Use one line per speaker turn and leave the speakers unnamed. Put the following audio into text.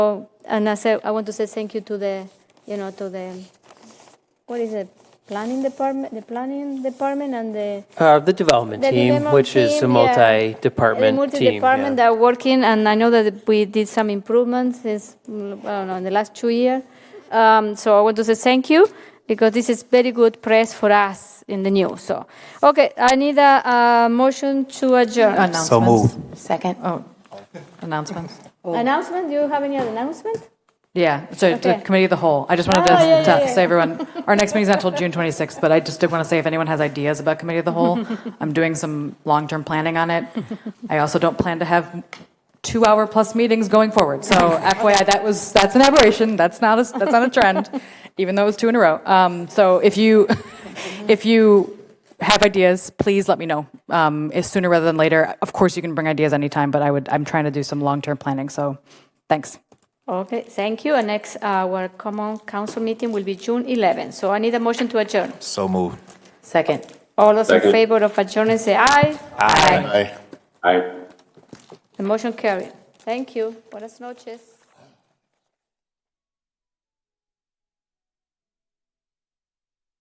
So, and I said, I want to say thank you to the, you know, to the, what is it, planning department, the planning department and the.
Uh, the development
the
team,
development
which is a
team, yeah.
multi-department team.
The multi-department
yeah.
that are working, and I know that we did some improvements since, mm, I don't know, in the last two years. Um, so I want to say thank you, because this is very good press for us in the news, so. Okay, I need a, a motion to adjourn.
Announcements.
So
Second, oh, announcements?
Announcement, do you have any other announcement?
Yeah, so the
Okay.
committee of the whole, I just wanted
Oh, yeah,
to
yeah,
to
yeah.
say everyone, our next meeting's not until June 26th, but I just did want to say if anyone has ideas about committee of the whole, I'm doing some long-term planning on it. I also don't plan to have two-hour-plus meetings going forward, so FYI, that was, that's an aberration, that's not, a that's not a trend, even though it was two in a row. Um, So if you, if you have ideas, please let me know. Um, is sooner rather than later. Of course, you can bring ideas anytime, but I would. I'm trying to do some long-term planning. So, thanks.
Okay, thank you. And next, our common council meeting will be June 11. So I need a motion to adjourn.
So moved.
Second.
All those in
Second.
favor of adjournment, say aye.
Aye.
Aye.
The motion carried. Thank you. Buenas noches.